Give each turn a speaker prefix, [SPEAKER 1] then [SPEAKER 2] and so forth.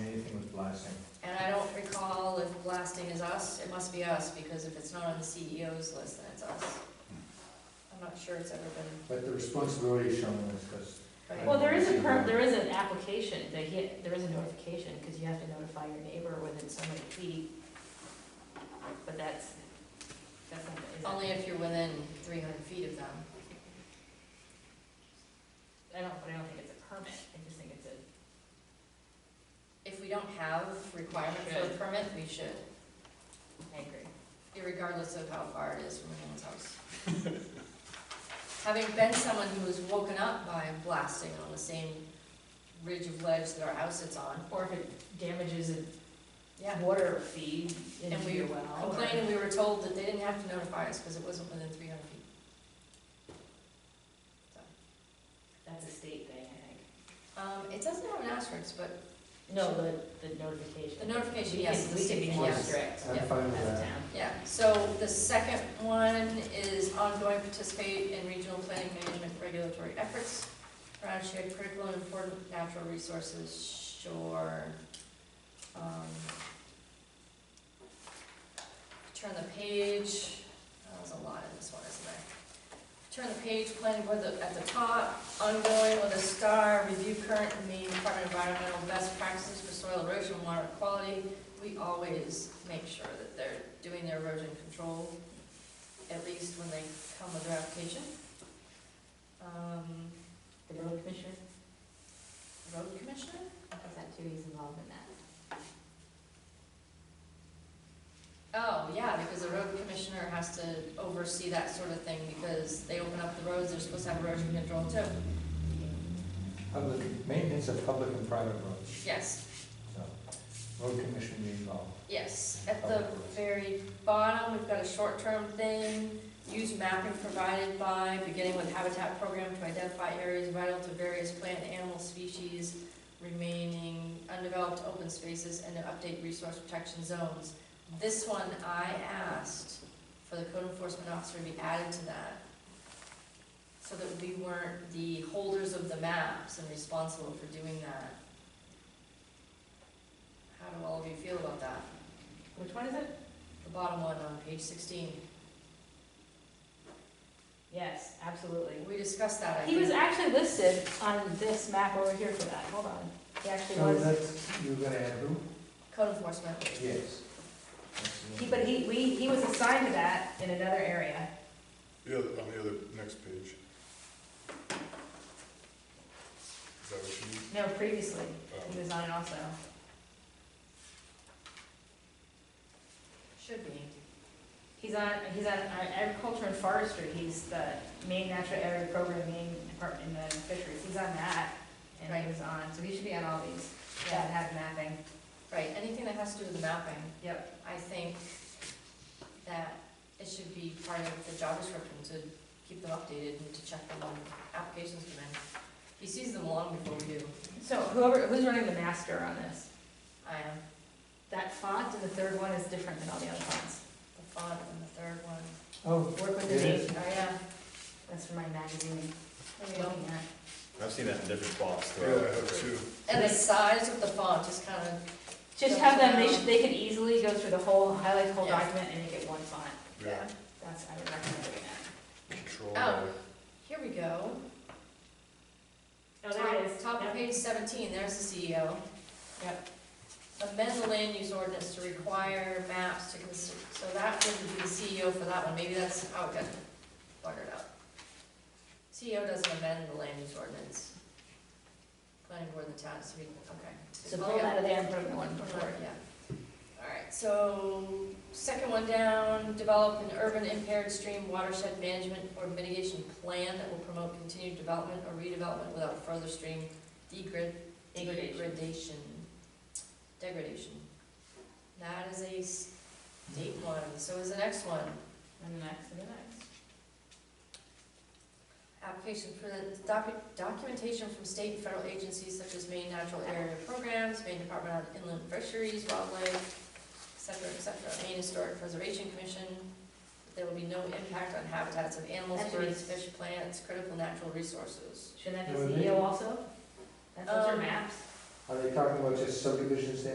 [SPEAKER 1] blasting.
[SPEAKER 2] And I don't recall if blasting is us, it must be us, because if it's not on the CEO's list, then it's us. I'm not sure it's ever been,
[SPEAKER 1] But the responsibility is shown in this, because
[SPEAKER 2] right?
[SPEAKER 3] Well, there is a per, there is an application, they, hit- there is a notification, because you have to notify your neighbor within so many feet. But that's, that's not, is that-
[SPEAKER 2] Only if you're within three hundred feet of them.
[SPEAKER 3] I don't, but I don't think it's a permit, I just think it's a,
[SPEAKER 2] If we don't have requirement for a
[SPEAKER 3] Should.
[SPEAKER 2] permit, we should,
[SPEAKER 3] I agree.
[SPEAKER 2] regardless of how far it is from anyone's house. Having been someone who was woken up by blasting on the same ridge of ledge that our house sits on,
[SPEAKER 3] Or if it damages
[SPEAKER 2] yeah.
[SPEAKER 3] a water feed
[SPEAKER 2] And
[SPEAKER 3] into
[SPEAKER 2] we
[SPEAKER 3] your well. or-
[SPEAKER 2] complained and we were told that they didn't have to notify us because it wasn't within three hundred feet.
[SPEAKER 3] That's a state thing, I think.
[SPEAKER 2] Um, it doesn't have an asterisk, but
[SPEAKER 3] No, the, the notification.
[SPEAKER 2] The notification,
[SPEAKER 3] We
[SPEAKER 2] yes,
[SPEAKER 3] can-
[SPEAKER 2] the
[SPEAKER 3] We can be
[SPEAKER 2] state,
[SPEAKER 3] more
[SPEAKER 1] yes.
[SPEAKER 3] strict
[SPEAKER 1] I'm
[SPEAKER 2] Yeah,
[SPEAKER 1] fine with
[SPEAKER 3] as a
[SPEAKER 1] that.
[SPEAKER 3] town.
[SPEAKER 2] yeah, so the second one is ongoing participate in regional planning management regulatory efforts around shared critical and important natural resources, shore. um, Turn the page, that was a lot in this one, isn't there? Turn the page, planning board the- at the top, ongoing with a star, review current and main Department of Environmental best practices for soil erosion and water quality. We always make sure that they're doing their erosion control, at least when they come with their application. Um,
[SPEAKER 3] The road commissioner,
[SPEAKER 2] Road commissioner?
[SPEAKER 3] is that too, he's involved in that?
[SPEAKER 2] Oh, yeah, because the road commissioner has to oversee that sort of thing, because they open up the roads, they're supposed to have erosion control too.
[SPEAKER 1] Public, maintenance of public and private roads,
[SPEAKER 2] Yes,
[SPEAKER 1] so, road commission be involved.
[SPEAKER 2] yes. At the very bottom, we've got a short-term thing. Use mapping provided by, beginning with habitat program to identify areas vital to various plant and animal species, remaining undeveloped open spaces, and to update resource protection zones. This one, I asked for the code enforcement officer to be added to that, so that we weren't the holders of the maps and responsible for doing that. How do all of you feel about that?
[SPEAKER 3] Which one is it?
[SPEAKER 2] The bottom one on page sixteen,
[SPEAKER 3] Yes, absolutely.
[SPEAKER 2] we discussed that, I
[SPEAKER 3] He was
[SPEAKER 2] think.
[SPEAKER 3] actually listed on this map over here for that, hold on. He actually
[SPEAKER 1] So
[SPEAKER 3] was,
[SPEAKER 1] Oh, that's, you're gonna add who?
[SPEAKER 2] Code enforcement,
[SPEAKER 1] Yes. That's the-
[SPEAKER 3] he, but he, we, he was assigned to that in another area.
[SPEAKER 4] The other, on the other, next page. Is that what you need?
[SPEAKER 3] No, previously, he
[SPEAKER 4] Um,
[SPEAKER 3] was on it also.
[SPEAKER 2] should be.
[SPEAKER 3] He's on, he's on agriculture and forestry, he's the main natural area program, main department in the fisheries, he's on that. And
[SPEAKER 2] Right.
[SPEAKER 3] he was on, so he should be on all these that
[SPEAKER 2] Yeah,
[SPEAKER 3] have mapping.
[SPEAKER 2] right, anything that has to do with the mapping,
[SPEAKER 3] Yep.
[SPEAKER 2] I think that it should be part of the job description to keep them updated and to check them when applications come in. He sees them long before we do,
[SPEAKER 3] So whoever, who's running the master on this?
[SPEAKER 2] I am,
[SPEAKER 3] That font in the third one is different than all the other fonts.
[SPEAKER 2] the font and the third one,
[SPEAKER 1] Oh,
[SPEAKER 3] Work with
[SPEAKER 1] It
[SPEAKER 3] the
[SPEAKER 1] is?
[SPEAKER 3] name,
[SPEAKER 2] oh yeah,
[SPEAKER 3] that's for my magazine,
[SPEAKER 2] there you go.
[SPEAKER 3] looking at.
[SPEAKER 5] I've seen that in different spots
[SPEAKER 4] Yeah,
[SPEAKER 5] throughout.
[SPEAKER 4] I have two.
[SPEAKER 2] And the size of the font is kind of,
[SPEAKER 3] Just have them, they should, they can easily go through the whole, highlight the whole
[SPEAKER 2] Yeah.
[SPEAKER 3] document and make it one font.
[SPEAKER 2] yeah,
[SPEAKER 4] Yeah,
[SPEAKER 3] That's, I would recommend doing that.
[SPEAKER 4] control.
[SPEAKER 2] Oh. here we go.
[SPEAKER 3] Oh, there it is.
[SPEAKER 2] Top of page seventeen, there's the CEO.
[SPEAKER 3] Yep.
[SPEAKER 2] Amend the land use ordinance to require maps to consider, so that would be the CEO for that one, maybe that's how it got buggered up. CEO doesn't amend the land use ordinance. Planning board and the town, so we, okay.
[SPEAKER 3] So pull that out of there and put it in the one before.
[SPEAKER 2] Alright, yeah. Alright, so, second one down, develop an urban impaired stream watershed management or mitigation plan that will promote continued development or redevelopment without further stream degrid,
[SPEAKER 3] Degradation.
[SPEAKER 2] degradation, degradation. That is a state one, so is the next one.
[SPEAKER 3] And the next, and the next.
[SPEAKER 2] Application presents docu- documentation from state and federal agencies such as Maine Natural Area Programs, Maine Department of Inland Fisheries, Wildlife, et cetera, et cetera, Maine Historic Preservation Commission. There will be no impact on habitats of animals,
[SPEAKER 3] That should be-
[SPEAKER 2] birds, fish, plants, critical natural resources.
[SPEAKER 3] Shouldn't that
[SPEAKER 1] That would
[SPEAKER 3] be
[SPEAKER 1] be-
[SPEAKER 3] CEO also? That's those are
[SPEAKER 2] Um,
[SPEAKER 3] maps.
[SPEAKER 1] are they talking about just subdivisions then?